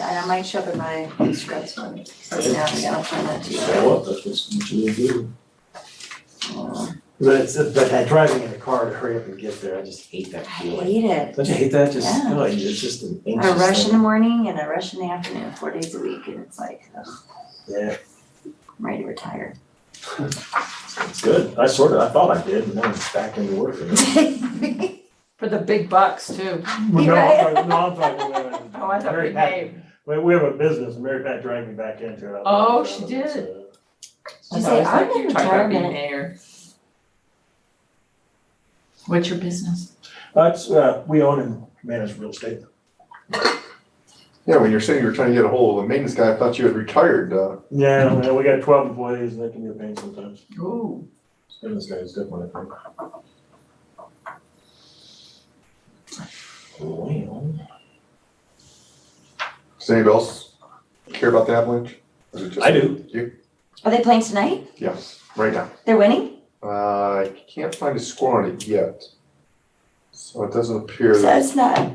and I might show up in my scrubs one, something else, I'll find that to you. Show up, that's what you do. Oh, But it's, but that driving in the car to hurry up and get there, I just hate I that feeling. hate it. Don't you hate that? Just, Yeah. oh, it's just an anxious I thing. rush in the morning and I rush in the afternoon, four days a week, and it's like, ugh, Yeah, I'm ready to retire. it's good. I sort of, I thought I did, and then I'm back into work. For the big bucks too. Well, no, Right. I'm talking, no, I'm talking about. Oh, I Oh, thought we Mary Pat- paid. We, we have a business, and Mary Pat dragged me back into it. uh, Oh, she So, did. You say, I'm in You talked about being retirement. mayor. What's your business? That's, uh, we own and manage real estate. Yeah, when you're saying you were trying to get a hold of the maintenance guy, I thought you had retired, uh, Yeah, man, we got twelve employees, and that can be a pain sometimes. Ooh. And this guy's definitely. a pain. Well, does anybody else care about the Avalanche? Or is it just I do. Are they playing tonight? Yes, right now. They're winning? Uh, I can't find a score on it yet. So it doesn't appear, So that- it's not.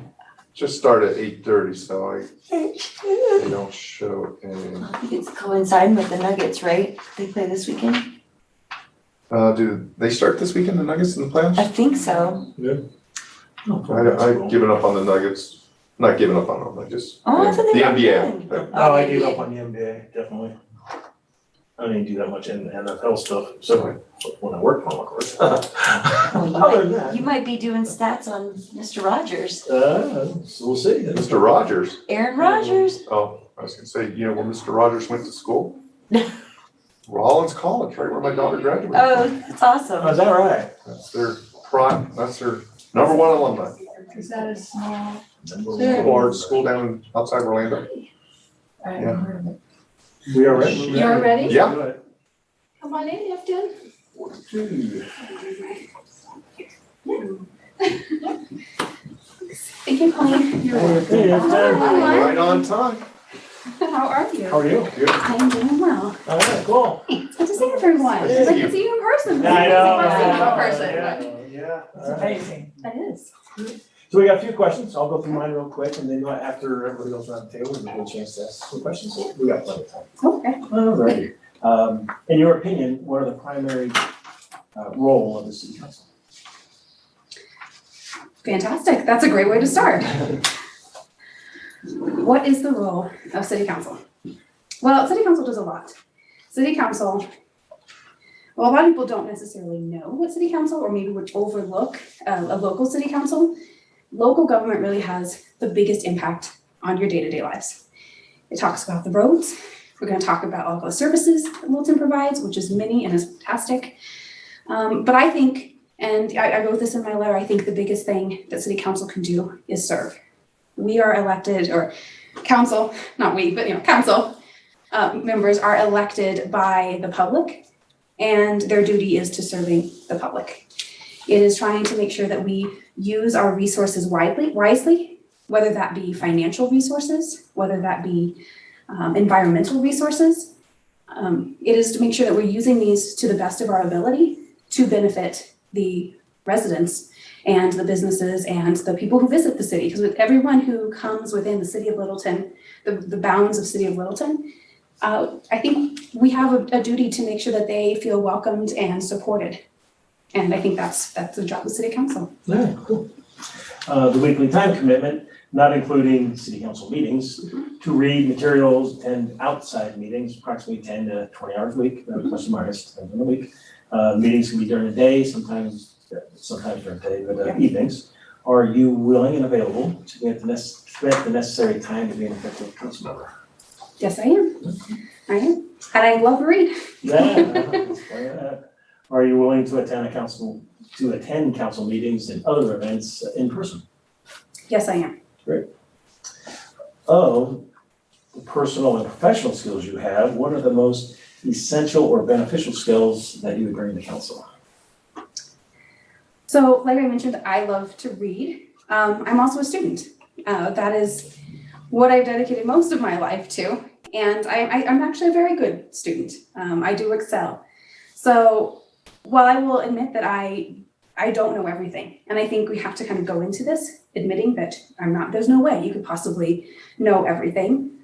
just started at eight thirty, so I, they don't show any. I think it's coinciding with the Nuggets, right? They play this weekend? Uh, do they start this weekend, the Nuggets in the I playoffs? think so. I, I've given up on the Nuggets, not given up on them, I just. Oh, I thought they The were NBA. good. Oh, I gave up on the NBA, definitely. I didn't do that much in NFL stuff, so when I worked on, of course. Other than that, You might be doing stats on Mr. Rogers, uh, so we'll see. That's- Mr. Rogers, Aaron Rodgers. oh, I was gonna say, you know, where Mr. Rogers went to school? Rollins College, right where my daughter graduated. Oh, that's Oh, awesome. Is that right? That's their prime, that's their number one alumni. Is that a small? Number one. Large school down outside Orlando. I haven't Yeah. heard of it. We are ready. You're ready? Yeah, Come on in, Afton. Thank you, Colleen. Hey, it's time. Hi. right on time. How are you? How are you? Good. I'm doing well. All right, cool. It's good to see everyone. It's like to see you in person. I know, In I person, in know, person. Yeah. It's All right. amazing. That is. So we got a few questions. I'll go through mine real quick and then uh, after everybody goes around the table, we'll get a chance to ask some questions. We got plenty of time. Okay. All righty. Um, in your opinion, what are the primary, uh, role of the city council? Fantastic. That's a great way to start. What is the role of city council? Well, city council does a lot. City council, well, a lot of people don't necessarily know what city council, or maybe would overlook uh, a local city council. Local government really has the biggest impact on your day-to-day lives. It talks about the roads. We're gonna talk about all the services that Littleton provides, which is many and is fantastic. Um, but I think and I, I wrote this in my letter, I think the biggest thing that city council can do is serve. We are elected, or council, not we, but you know, council uh, members are elected by the public, and their duty is to serving the public. It is trying to make sure that we use our resources widely, wisely, whether that be financial resources, whether that be um, environmental resources. Um, it is to make sure that we're using these to the best of our ability to benefit the residents and the businesses and the people who visit the city. Because with everyone who comes within the city of Littleton, the, the bounds of city of Littleton, uh, I think we have a, a duty to make sure that they feel welcomed and supported. And I think that's, that's the job of city council. Yeah, cool. Uh, the weekly time commitment, not including city council meetings, to read materials, attend outside meetings, approximately ten to twenty hours a week, uh, plus or minus, depending on the week. Uh, meetings can be during the day, sometimes, sometimes during the day, but uh, evenings. Are you willing and available to get the necess- spend the necessary time to be an effective council member? Yes, I am. I am. And I love to read. Yeah. Are you willing to attend a council, to attend council meetings and other events in person? Yes, I am. of the personal and professional skills you have, what are the most essential or beneficial skills that you would bring to council? So, like I mentioned, I love to read. Um, I'm also a student. Uh, that is what I've dedicated most of my life to. And I, I, I'm actually a very good student. Um, I do excel. So, while I will admit that I I don't know everything, and I think we have to kind of go into this admitting that I'm not. There's no way you could possibly know everything.